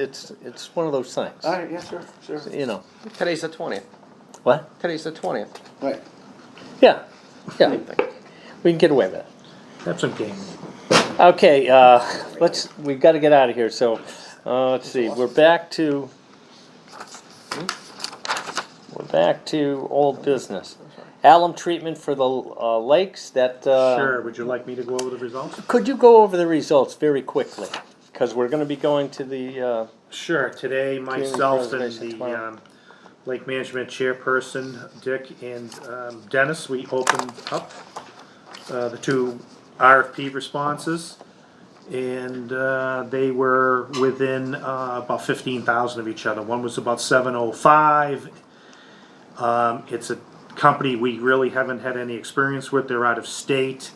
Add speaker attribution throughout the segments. Speaker 1: it's, it's one of those things,
Speaker 2: All right, yeah, sure, sure.
Speaker 1: you know,
Speaker 3: Today's the twentieth.
Speaker 1: what?
Speaker 3: Today's the twentieth.
Speaker 2: Right.
Speaker 1: Yeah, yeah, we can get away with it.
Speaker 4: That's okay.
Speaker 1: Okay, uh, let's, we've gotta get out of here, so, uh, let's see, we're back to, hmm? we're back to old business. Alum treatment for the, uh, lakes, that, uh.
Speaker 4: Sure, would you like me to go over the results?
Speaker 1: Could you go over the results very quickly? Because we're gonna be going to the, uh,
Speaker 4: Sure, today myself and
Speaker 1: preservation
Speaker 4: the
Speaker 1: tomorrow.
Speaker 4: um, Lake Management Chairperson, Dick and um, Dennis, we opened up uh, the two RFP responses. And uh, they were within uh, about fifteen thousand of each other. One was about seven oh five. Um, It's a company we really haven't had any experience with. They're out of state.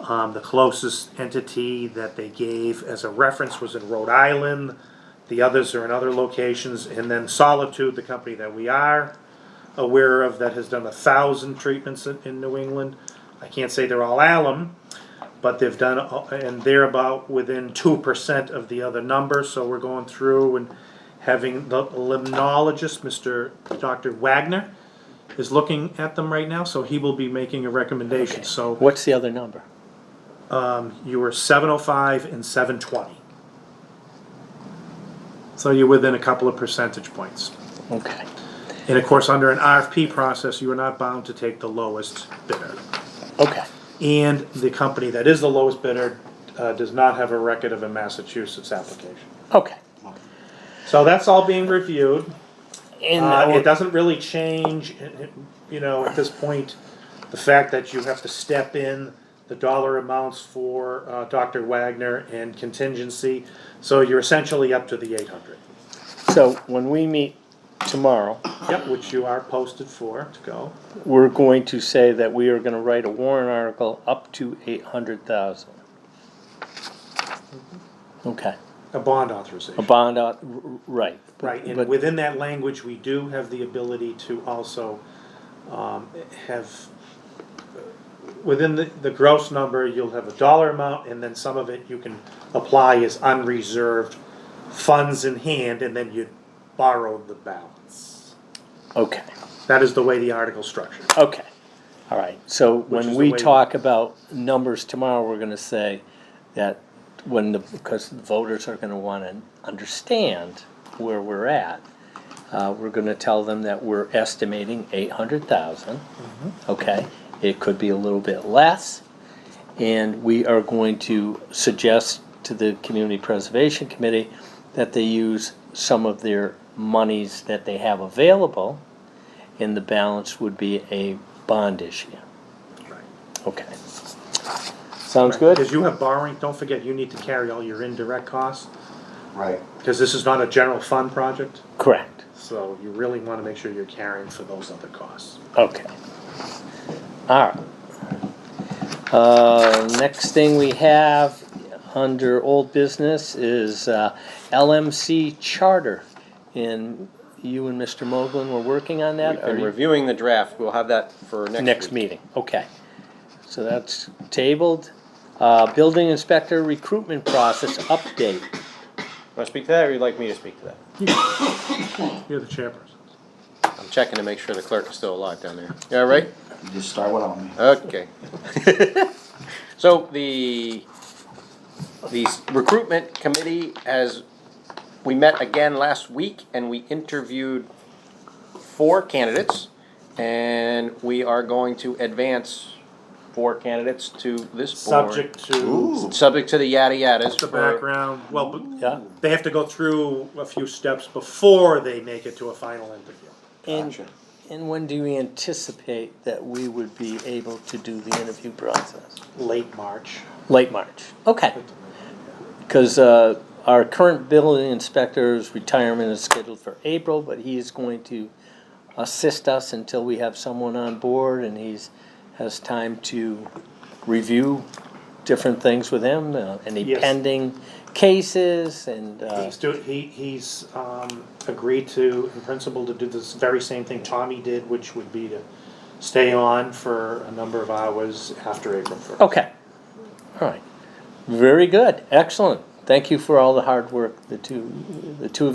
Speaker 4: Um, the closest entity that they gave as a reference was in Rhode Island. The others are in other locations, and then Solitude, the company that we are aware of that has done a thousand treatments in, in New England. I can't say they're all alum, but they've done, a- and they're about within two percent of the other number, so we're going through and having the limnologist, Mr. Dr. Wagner, is looking at them right now, so he will be making a recommendation, so
Speaker 1: what's the other number?
Speaker 4: you were 705 and 720. So you're within a couple of percentage points.
Speaker 1: Okay.
Speaker 4: And of course, under an RFP process, you are not bound to take the lowest bidder.
Speaker 1: Okay.
Speaker 4: And the company that is the lowest bidder uh, does not have a record of a Massachusetts application.
Speaker 1: Okay.
Speaker 4: Uh, So that's all being reviewed.
Speaker 1: And
Speaker 4: Uh,
Speaker 1: our-
Speaker 4: it doesn't really change, it- it- you know, at this point, the fact that you have to step in the dollar amounts for uh, Dr. Wagner and contingency, so you're essentially up to the eight hundred.
Speaker 1: so when we meet tomorrow,
Speaker 4: Yep, which you are posted for to go.
Speaker 1: we're going to say that we are gonna write a warrant article up to eight hundred thousand. Okay,
Speaker 4: A bond
Speaker 1: a
Speaker 4: authorization,
Speaker 1: bond, out- r- r- right.
Speaker 4: right, and
Speaker 1: But-
Speaker 4: within that language, we do have the ability to also um, have, uh, within the, the gross number, you'll have a dollar amount, and then some of it you can apply as unreserved funds in hand, and then you borrow the balance.
Speaker 1: Okay,
Speaker 4: That is the way the article's structured.
Speaker 1: okay, all right, so
Speaker 4: is
Speaker 1: when
Speaker 4: the
Speaker 1: we
Speaker 4: way-
Speaker 1: talk about numbers tomorrow, we're gonna say that when the, because the voters are gonna wanna understand where we're at, uh, we're gonna tell them that we're estimating eight hundred thousand,
Speaker 4: Mm-hmm.
Speaker 1: okay? It could be a little bit less, and we are going to suggest to the Community Preservation Committee that they use some of their monies that they have available, and the balance would be a bond issue. Okay. Sounds good?
Speaker 4: Because you have borrowing, don't forget, you need to carry all your indirect costs,
Speaker 2: Right.
Speaker 4: because this is not a general fund project,
Speaker 1: Correct.
Speaker 4: so you really want to make sure you're carrying for those other costs.
Speaker 1: Okay. All right. Uh, next thing we have under old business is uh, LMC charter. And you and Mr. Moglen were working on that?
Speaker 3: We've
Speaker 1: or
Speaker 3: been
Speaker 1: you-
Speaker 3: reviewing the draft. We'll have that for next.
Speaker 1: Next
Speaker 3: week.
Speaker 1: meeting, okay. So that's tabled. Uh, Building inspector recruitment process update.
Speaker 3: Want to speak to that, or you'd like me to speak to that?
Speaker 4: You're the chairperson.
Speaker 3: I'm checking to make sure the clerk is still alive down there. You all right?
Speaker 2: You just start without me.
Speaker 3: Okay. So the, the recruitment committee has, we met again last week and we interviewed four candidates. And we are going to advance four candidates to this board.
Speaker 4: Subject to
Speaker 3: Subject to the yada yadas.
Speaker 4: the
Speaker 3: for-
Speaker 4: background, well, but
Speaker 1: Yeah.
Speaker 4: they have to go through a few steps before they make it to a final interview.
Speaker 1: And, and when do you anticipate that we would be able to do the interview process?
Speaker 4: Late March.
Speaker 1: Late March, okay. Because uh, our current building inspector's retirement is scheduled for April, but he is going to assist us until we have someone on board and he's, has time to review different things with him, uh, any
Speaker 4: Yes.
Speaker 1: pending cases and, uh,
Speaker 4: He's do, he, he's, um, agreed to, in principle, to do this very same thing Tommy did, which would be to stay on for a number of hours after April first.
Speaker 1: okay. All right, very good, excellent, thank you for all the hard work the two, the two of